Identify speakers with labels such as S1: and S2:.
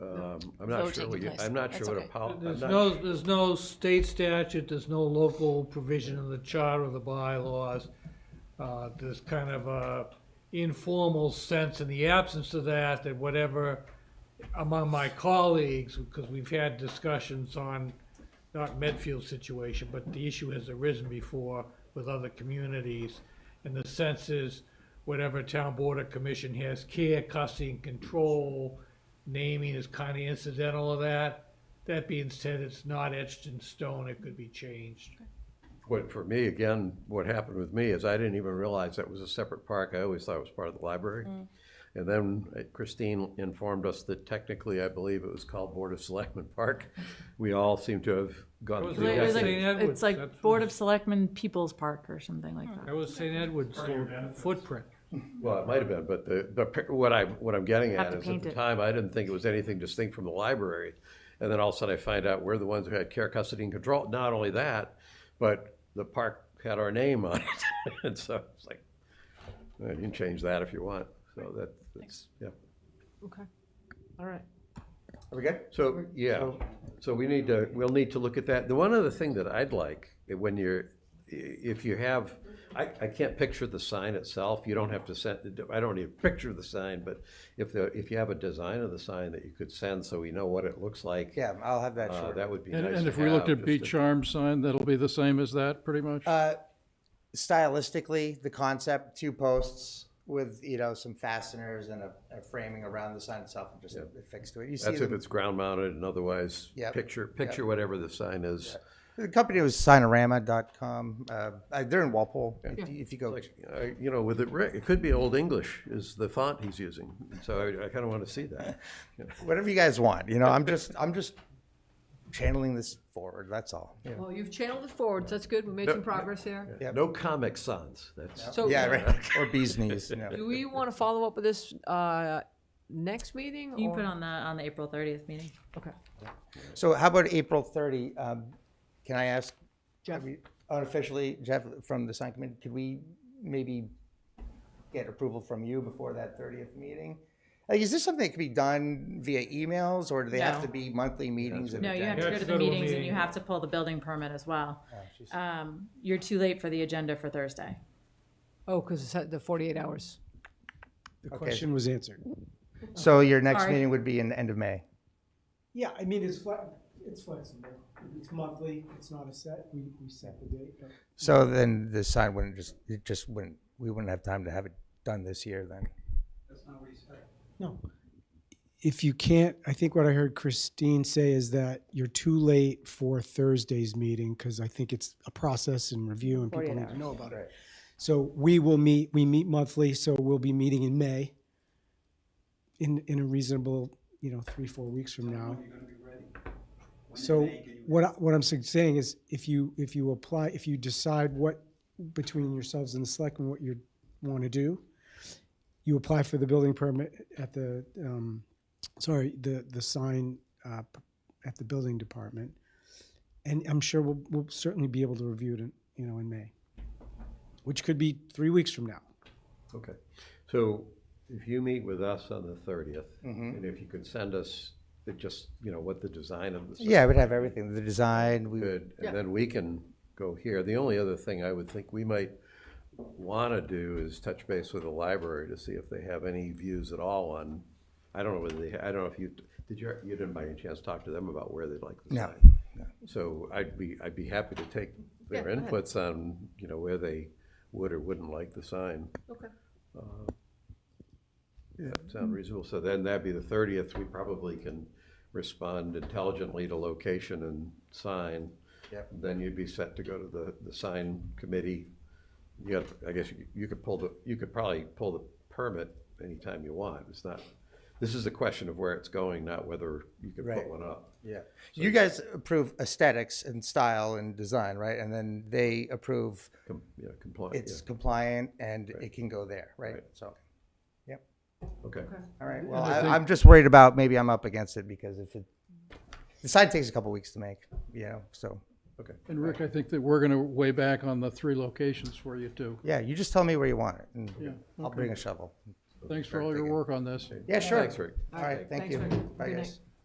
S1: Um, I'm not sure
S2: voting
S1: what you,
S2: place.
S1: I'm not sure
S2: That's
S1: what a
S2: okay.
S1: pol, I'm
S3: There's
S1: not,
S3: no, there's no state statute, there's no local provision in the charter or the bylaws. Uh, There's kind of a informal sense in the absence of that, that whatever among my colleagues, because we've had discussions on, not Medfield's situation, but the issue has arisen before with other communities. And the sense is, whatever town board or commission has care, custody, and control, naming is kind of incidental of that. That being said, it's not etched in stone, it could be changed.
S1: what, for me, again, what happened with me is I didn't even realize that was a separate park. I always thought it was part of the library.
S2: Mm.
S1: And then uh, Christine informed us that technically, I believe it was called Board of Selectmen Park. We all seem to have gone
S3: was
S1: through
S3: like-
S4: It was
S1: that.
S4: like-
S3: St. Edward's,
S4: It's like
S3: that's-
S4: Board of Selectmen People's Park or something like that.
S3: That was St. Edward's footprint.
S1: Well, it might have been, but the, the, pic- what I, what I'm getting
S4: Have
S1: at
S4: to
S1: is at
S4: paint
S1: the
S4: it.
S1: time, I didn't think it was anything distinct from the library. And then all of a sudden I find out we're the ones who had care, custody and control. Not only that, but the park had our name on it. And so it's like, well, Uh, you can change that if you want. So that, that's, yeah.
S4: Okay, all right.
S1: Okay. So, yeah, so we need to, we'll need to look at that. The one other thing that I'd like, eh, when you're, i- if you have, I, I can't picture the sign itself, you don't have to send, I don't need a picture of the sign, but if the, if you have a design of the sign that you could send so we know what it looks like,
S5: Yeah, I'll have that
S1: uh,
S5: short.
S1: that would be nice
S6: And,
S1: to have.
S6: and if we looked at
S1: just
S6: Beach
S1: to-
S6: Charm sign, that'll be the same as that, pretty much?
S5: Uh, stylistically, the concept, two posts with, you know, some fasteners and a, a framing around the sign itself and just affixed to it. You see,
S1: That's if
S5: them-
S1: it's ground mounted and otherwise,
S5: Yep.
S1: picture, picture whatever the sign is.
S5: the company was signorama.com. Uh, uh, they're in Walpole. If, you- if you go,
S1: Like, uh, you know, with it, writ- it could be Old English is the font he's using, so I, I kinda wanna see that.
S5: whatever you guys want, you know, I'm just, I'm just channeling this forward. That's all. Yeah,
S7: Well, you've channeled it forward, so that's good, we made some progress here.
S5: Yep.
S1: No Comic Sans, that's.
S7: So,
S5: right. or bees knees. You know.
S7: do we want to follow up with this uh, next meeting?
S4: Hmm. You can
S7: or-
S4: put on the, on the April thirtieth meeting.
S7: Okay.
S5: So how about April 30? Um, can I ask, Jeff, unofficially, Jeff, from the sign committee, could we maybe get approval from you before that 30th meeting? Like, is this something that could be done via emails, or do they have
S4: No.
S5: to be monthly meetings? and
S4: No, you have to
S3: Yeah,
S4: go to
S3: it's
S4: the
S3: a little
S4: meetings and
S3: meeting. Oh,
S4: you have to pull the building permit as well. Um, you're too late for the agenda for Thursday.
S7: Oh, because it's at the 48 hours.
S8: The question was answered.
S5: So your next
S4: Sorry.
S5: meeting would be in the end of May?
S8: Yeah, I mean, it's fle- it's flexible. It's monthly, it's not a set, we, we set the date, but
S5: So then the sign wouldn't just, it just wouldn't, we wouldn't have time to have it done this year then?
S8: no. If you can't, I think what I heard Christine say is that you're too late for Thursday's meeting, because I think it's a process and review and people need to know about it. So we will meet, we meet monthly, so we'll be meeting in May in, in a reasonable, you know, three, four weeks from now. So what, I- what I'm sug- saying is if you, if you apply, if you decide what, between yourselves and the selectmen, what you want to do, you apply for the building permit at the, um, sorry, the, the sign, uh, p- at the building department. And I'm sure we'll, we'll certainly be able to review it in, you know, in May, which could be three weeks from now.
S1: Okay, so if you meet with us on the thirtieth, and if you could send us the just, you know, what the design of the. sign
S5: Yeah, we'd have everything, the design, we would.
S1: Good, and then we can go here. The only other thing I would think we might wanna do is touch base with the library to see if they have any views at all on, I don't know whether they, I don't know if you, did you, you didn't by any chance talk to them about where they'd like the
S5: No,
S1: sign? So I'd be, I'd be happy to take their inputs on, you know, where they would or wouldn't like the sign.
S7: Okay.
S1: That
S5: Mm-hmm.
S1: sound reasonable? So then that'd be the thirtieth, we probably can respond intelligently to location and sign.
S5: Yep.
S1: Then you'd be set to go to the, the sign committee. You got, I guess you- you could pull the, you could probably pull the permit anytime you want, it's not, this is a question of where it's going, not whether you could put
S5: Right.
S1: one up.
S5: Yeah. You guys approve aesthetics and style and design, right? And then they approve
S1: Com- Yeah, compliant,
S5: it's
S1: yeah,
S5: compliant and it can go there, right? So,
S1: okay.
S5: all right, well, I, I'm just worried about, maybe I'm up against it because if it, the sign takes a couple weeks to make, you know, so.
S6: And Rick, I think that we're gonna weigh back on the three locations for you too.
S5: Yeah, you just tell me where you want it and I'll bring a shovel.
S6: Thanks for all your work on this.
S5: Yeah, sure.
S1: Thanks, Rick.
S5: All right, thank
S7: Thanks,
S5: you.
S7: Rick.
S5: Bye,
S7: Good
S5: guys.